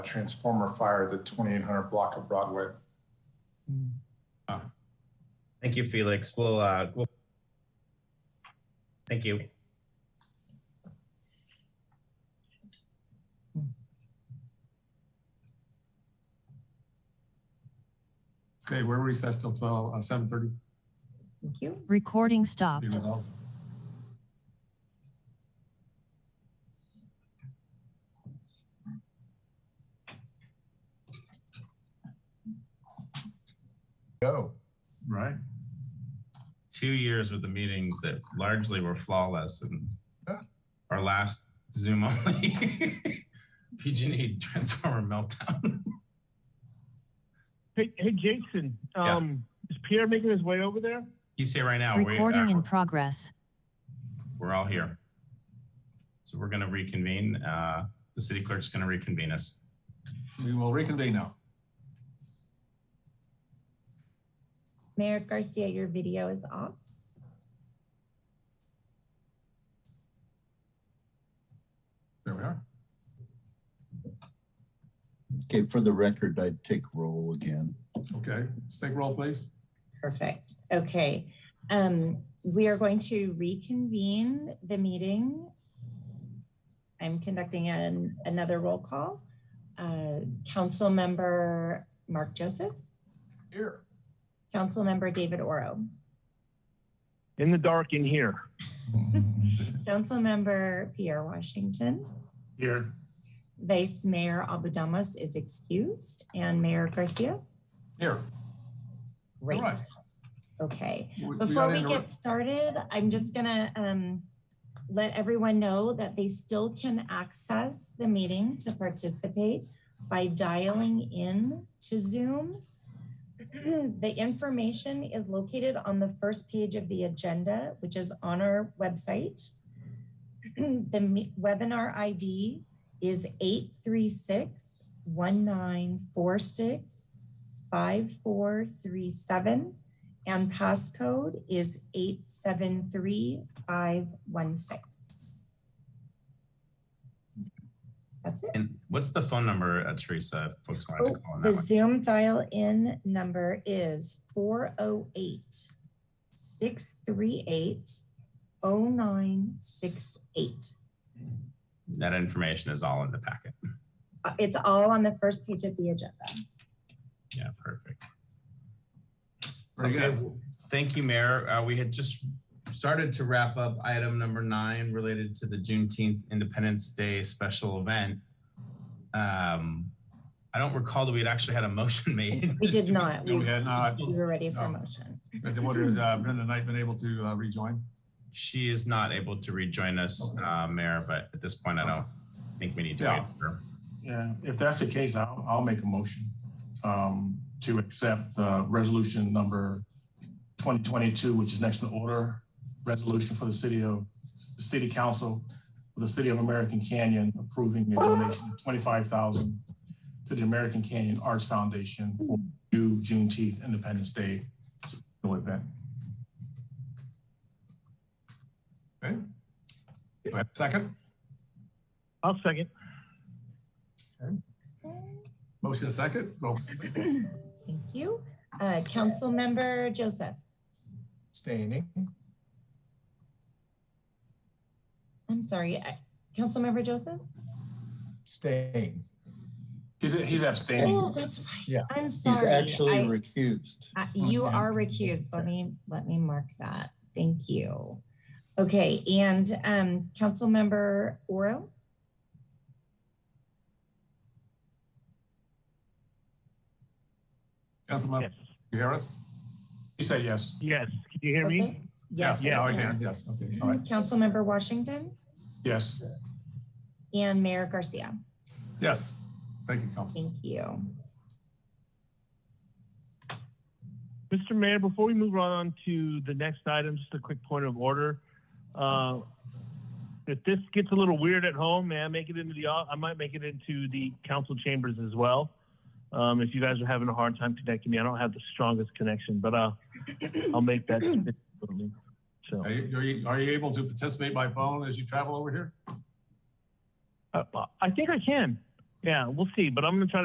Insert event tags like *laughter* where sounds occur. transformer fire at the 2800 block of Broadway. Thank you, Felix. We'll, uh, we'll. Thank you. Okay, we're recessed till twelve, uh, seven thirty. Thank you. Recording stopped. Go. Right. Two years with the meetings that largely were flawless and Yeah. our last Zoom only *laughs* PG&E E transformer meltdown. *laughs* Hey, hey, Jason. Yeah. Um, is Pierre making his way over there? He's here right now. We, Recording uh, in progress. we're all here. So we're going to reconvene. Uh, the city clerk's going to reconvene us. We will reconvene now. Mayor Garcia, your video is off. There we are. Okay, for the record, I'd take roll again. Okay, let's take roll, please. Perfect. Okay. Um, we are going to reconvene the meeting. I'm conducting an, another roll call. Uh, Council Member Mark Joseph, Here. Council Member David Oro, In the dark in here. Council Member Pierre Washington, Here. Vice Mayor Abudamos is excused, and Mayor Garcia. Here. Great. right. Okay. We- we Before gotta we interrupt- get started, I'm just gonna um, let everyone know that they still can access the meeting to participate by dialing in to Zoom. *clears throat* The information is located on the first page of the agenda, which is on our website. *clears throat* The me- webinar ID is 836 1946 5437 and passcode is eight seven three five one six. That's it. And what's the phone number, uh, Teresa, if folks wanted Oh, to call on the that one? Zoom dial in number is 408 638 0968. That information is all in the packet. Uh, It's all on the first page of the agenda. Yeah, perfect. Very Okay. good. Thank you, Mayor. Uh, we had just started to wrap up item number nine related to the Juneteenth Independence Day special event. Um, I don't recall that we'd actually had a motion *laughs* made. We did not. No, we We had not. we were ready for No. motion. But the wonder, has uh, Brenda Knight been able to uh, rejoin? She is not able to rejoin us, uh, Mayor, but at this point, I don't think we need to wait Yeah. for. Yeah, if that's the case, I'll, I'll make a motion um, to accept uh, resolution number 2022, which is next in order, resolution for the city of, the city council, for the city of American Canyon approving a donation of 25,000 to the American Canyon Arts Foundation for new Juneteenth Independence Day special event. Okay. Do I have a Second, I'll second. motion is second, roll. Thank you. Uh, Councilmember Joseph. Standing. I'm sorry, I- Councilmember Joseph? Staying. He's, he's abstaining. Oh, that's right. Yeah. I'm He's sorry. actually I- recused. Uh, You Okay. are recused. Let me, let me mark that. Thank you. Okay, and um, Councilmember Oro? Councilmember Yes. Harris? He said yes. Yes. Can you hear me? Okay. Yes. Now I oh, can, yes, okay, all right. Councilmember Washington Yes. and Mayor Garcia. Yes, thank you, Council. Thank you. Mr. Mayor, before we move on to the next item, just a quick point of order. Uh, If this gets a little weird at home, may I make it into the, au- I might make it into the council chambers as well. Um, If you guys are having a hard time connecting me, I don't have the strongest connection, but uh, I'll make *clears throat* that. So, Are you, are you- are you able to participate by phone as you travel over here? uh, I think I can. Yeah, we'll see, but I'm gonna try